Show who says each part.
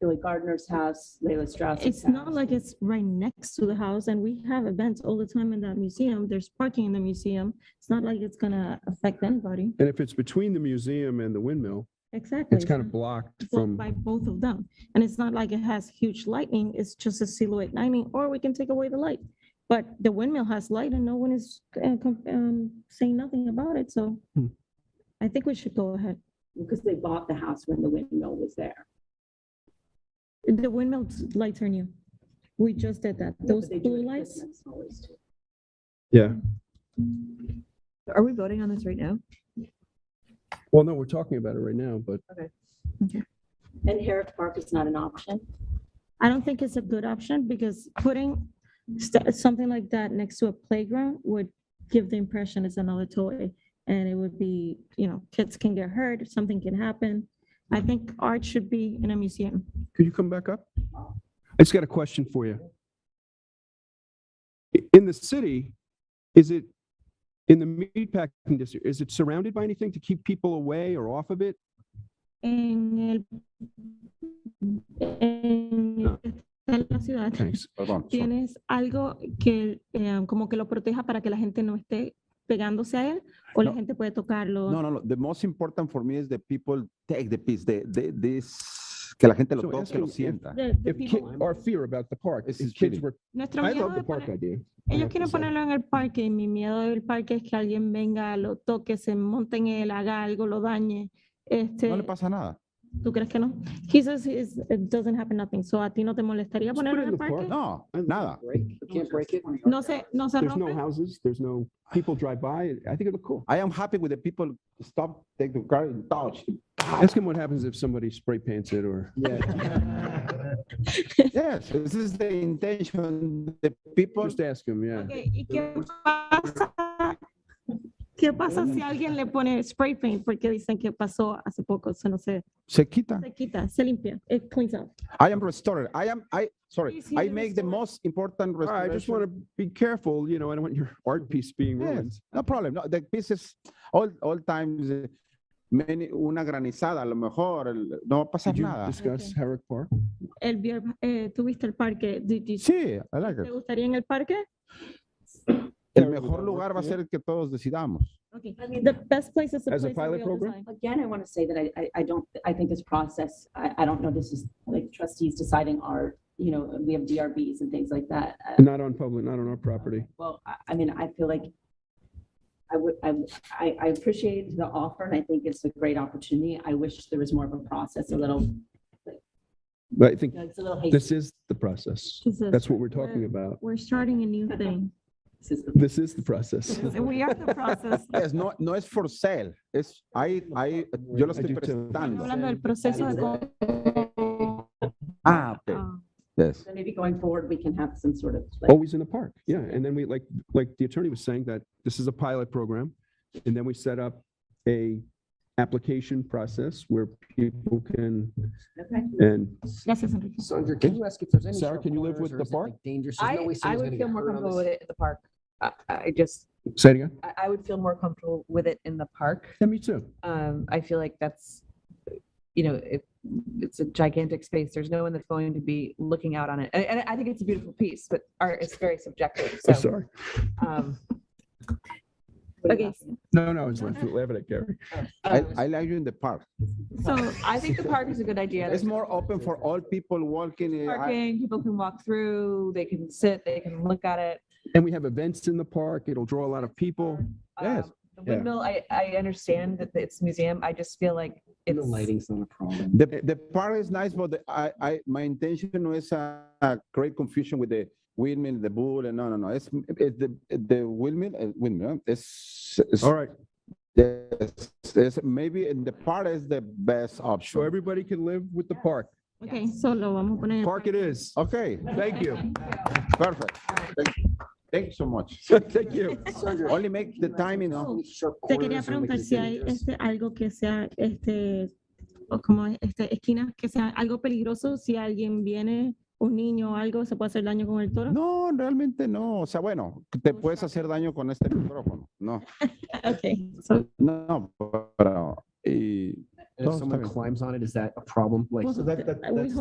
Speaker 1: Billy Gardner's house, Leila Strauss's house.
Speaker 2: It's not like it's right next to the house and we have events all the time in that museum. There's parking in the museum. It's not like it's gonna affect anybody.
Speaker 3: And if it's between the museum and the windmill,
Speaker 2: Exactly.
Speaker 3: it's kind of
Speaker 2: not
Speaker 3: blocked
Speaker 2: Mm-hmm. blocked
Speaker 3: from,
Speaker 2: By both of them. And it's not like it has huge lightning. It's just a silhouette lightning, or we can take away the light. But the windmill has light and no one is uh, com- um, saying nothing about it, so
Speaker 3: Hmm.
Speaker 2: I think we should go ahead.
Speaker 1: Because they bought the house when the windmill was there.
Speaker 2: The windmill t- lights are new. We just did that.
Speaker 1: Yeah, but
Speaker 2: Those
Speaker 1: they do it
Speaker 2: blue
Speaker 1: at
Speaker 2: lights,
Speaker 1: Christmas always, too.
Speaker 3: yeah.
Speaker 4: Are we voting on this right now?
Speaker 3: Well, no, we're talking about it right now, but
Speaker 1: And Harris Park is not an option.
Speaker 2: I don't think it's a good option because putting st- something like that next to a playground would give the impression it's another toy. And it would be, you know, kids can get hurt, something can happen. I think art should be in a museum.
Speaker 3: could you come back up? I just got a question for you. I- In the city, is it, in the meatpacking district, is it surrounded by anything to keep people away or off of it?
Speaker 2: En el. En en la ciudad.
Speaker 3: Thanks.
Speaker 5: Perdón, so-
Speaker 2: ¿Tienes algo que eh, como que lo proteja para que la gente no esté pegándose a él o la
Speaker 5: No.
Speaker 2: gente puede tocarlo?
Speaker 5: no, no, no. The most important for me is the people take the piece, the, the, this, que la gente lo
Speaker 3: So
Speaker 5: toque, que lo
Speaker 3: asking if-
Speaker 5: sienta.
Speaker 2: The- the
Speaker 3: If, ki-
Speaker 2: people-
Speaker 3: our fear about the park,
Speaker 5: This
Speaker 3: if
Speaker 5: is
Speaker 3: kids
Speaker 5: cheating.
Speaker 3: were,
Speaker 2: Nuestro
Speaker 3: I
Speaker 2: miedo
Speaker 3: love
Speaker 2: de
Speaker 3: the park
Speaker 2: poner-
Speaker 3: idea. I
Speaker 2: ellos
Speaker 3: have to
Speaker 2: quieren
Speaker 3: say.
Speaker 2: ponerlo en el parque y mi miedo del parque es que alguien venga, lo toque, se monte en él, haga algo, lo dañe. Este,
Speaker 5: No le pasa nada.
Speaker 2: ¿Tú crees que no? He says it's- it doesn't happen nothing. So a ti no te molestaría
Speaker 3: Just put
Speaker 2: ponerlo
Speaker 3: it
Speaker 2: en el
Speaker 3: in the park.
Speaker 2: parque.
Speaker 5: No, nada.
Speaker 6: Break, you can't break it.
Speaker 2: No se, no se
Speaker 3: There's no
Speaker 2: rompe.
Speaker 3: houses, there's no, people drive by. I think it look cool.
Speaker 5: I am happy with the people stop, take the car and touch. Ah.
Speaker 3: Ask him what happens if somebody spray paints it or.
Speaker 5: Yes, this is the intention. The people,
Speaker 3: Just ask him, yeah.
Speaker 2: Ok, ¿Y qué pasa? ¿Qué pasa si alguien le pone spray paint? Porque dicen que pasó hace poco, eso no sé.
Speaker 5: se quitan.
Speaker 2: Se quita, se limpia. It cleans up.
Speaker 5: I am restored. I am, I, sorry,
Speaker 2: Please, you
Speaker 5: I make the
Speaker 2: restore.
Speaker 5: most important
Speaker 3: All right, Ah, I
Speaker 5: restoration.
Speaker 3: just want to be careful, you know, I don't want your art piece being ruined.
Speaker 5: Yes, no problem. No, the pieces, all, all times, eh, many, una granizada, a lo mejor, el- no va a pasar
Speaker 3: Did you
Speaker 5: nada.
Speaker 3: discuss Herrick Park?
Speaker 2: El, vier- eh, ¿Tuviste el parque? Did you-
Speaker 5: Sí, I like
Speaker 2: ¿Te
Speaker 5: it.
Speaker 2: gustaría en el parque?
Speaker 5: El
Speaker 3: Terrible
Speaker 5: mejor
Speaker 3: network,
Speaker 5: lugar va a
Speaker 3: yeah.
Speaker 5: ser el que todos decidamos.
Speaker 2: Okay.
Speaker 1: I mean,
Speaker 2: The best place is the
Speaker 3: As a
Speaker 2: place that
Speaker 3: pilot
Speaker 2: we all
Speaker 3: program?
Speaker 2: design.
Speaker 1: Again, I want to say that I, I, I don't, I think this process, I, I don't know, this is like trustees deciding our, you know, we have DRBs and things like that. Uh,
Speaker 3: Not on public, not on our property.
Speaker 1: Well, I, I mean, I feel like I would, I, I I appreciate the offer and I think it's a great opportunity. I wish there was more of a process, a little,
Speaker 3: But I think
Speaker 1: it's a little
Speaker 3: this
Speaker 1: hasty.
Speaker 3: is the process.
Speaker 2: She says,
Speaker 3: That's what we're talking about.
Speaker 2: We're starting a new thing.
Speaker 1: This is-
Speaker 3: This is the process.
Speaker 2: We are the process.
Speaker 5: Es, no, no es for sale, es, hay, hay, yo lo estoy
Speaker 3: I do too.
Speaker 5: prestando.
Speaker 2: Hablando del proceso de cómo-
Speaker 5: Ah, ok,
Speaker 2: ah,
Speaker 5: yes.
Speaker 1: So maybe going forward, we can have some sort of,
Speaker 7: Oh.
Speaker 1: like,
Speaker 3: Always in the park. Yeah. And then we, like, like the attorney was saying that this is a pilot program. And then we set up a application process where people can,
Speaker 1: okay.
Speaker 3: and
Speaker 2: Gracias, Enrique.
Speaker 6: Sandra, can you ask if there's any?
Speaker 3: Sarah,
Speaker 6: sharp
Speaker 3: can you live
Speaker 6: corners
Speaker 3: with
Speaker 6: or
Speaker 3: the
Speaker 6: is it, like,
Speaker 3: park?
Speaker 6: Dangerous. There's no
Speaker 7: I,
Speaker 6: way
Speaker 7: I
Speaker 6: someone's
Speaker 7: would
Speaker 6: gonna get
Speaker 7: feel more
Speaker 6: hurt on
Speaker 7: comfortable with
Speaker 6: this.
Speaker 7: it at the park. I, I just,
Speaker 3: say it again.
Speaker 7: I, I would feel more comfortable with it in the park.
Speaker 3: Yeah, me too.
Speaker 7: Um, I feel like that's, you know, it, it's a gigantic space. There's no one that's going to be looking out on it. And, and I think it's a beautiful piece, but art is very subjective.
Speaker 3: I'm
Speaker 7: So,
Speaker 3: sorry.
Speaker 7: um,
Speaker 1: Okay.
Speaker 3: No, no, I was laughing laughing at Gary.
Speaker 5: I,
Speaker 7: um,
Speaker 5: I like you in the park.
Speaker 7: so I think the park is a good idea.
Speaker 5: It's
Speaker 7: There's
Speaker 5: more open for all people walking. eh, I-
Speaker 7: parking, people can walk through, they can sit, they can look at it.
Speaker 3: And we have events in the park. It'll draw a lot of people. Yes,
Speaker 7: Um, The
Speaker 3: yeah.
Speaker 7: windmill, I, I understand that it's a museum. I just feel like
Speaker 6: And The
Speaker 7: it's.
Speaker 6: lighting's not a problem.
Speaker 5: The, the park is nice, but the- I, I, my intention no is uh, uh, create confusion with the windmill, the bull, and no, no, no. It's, it's the, the windmill, uh, windmill, it's, it's,
Speaker 3: All right.
Speaker 5: it's- it's maybe in the park is the best
Speaker 3: So
Speaker 5: option.
Speaker 3: everybody can live with the park.
Speaker 2: Okay, solo vamos a poner. en el
Speaker 3: Park it is.
Speaker 5: Okay,
Speaker 3: Thank you.
Speaker 5: perfect. Thank you. Thank you so much.
Speaker 3: Thank you.
Speaker 6: Sandra,
Speaker 5: Only make the time, you know.
Speaker 6: any sharp
Speaker 2: Oh, Te quería
Speaker 6: corners or, like,
Speaker 2: preguntar
Speaker 6: is
Speaker 2: si hay
Speaker 6: dangerous?
Speaker 2: este, algo que sea, este, o como este, esquinas, que sea algo peligroso, si alguien viene, un niño o algo, se puede hacer daño con el toro.
Speaker 5: No, realmente no. O sea, bueno, te puedes hacer daño con este micrófono. No,
Speaker 2: Okay, so,
Speaker 5: no, pero, y
Speaker 6: And
Speaker 5: Oh,
Speaker 6: if someone
Speaker 5: sorry.
Speaker 6: climbs on it, is that a problem? Like.
Speaker 2: we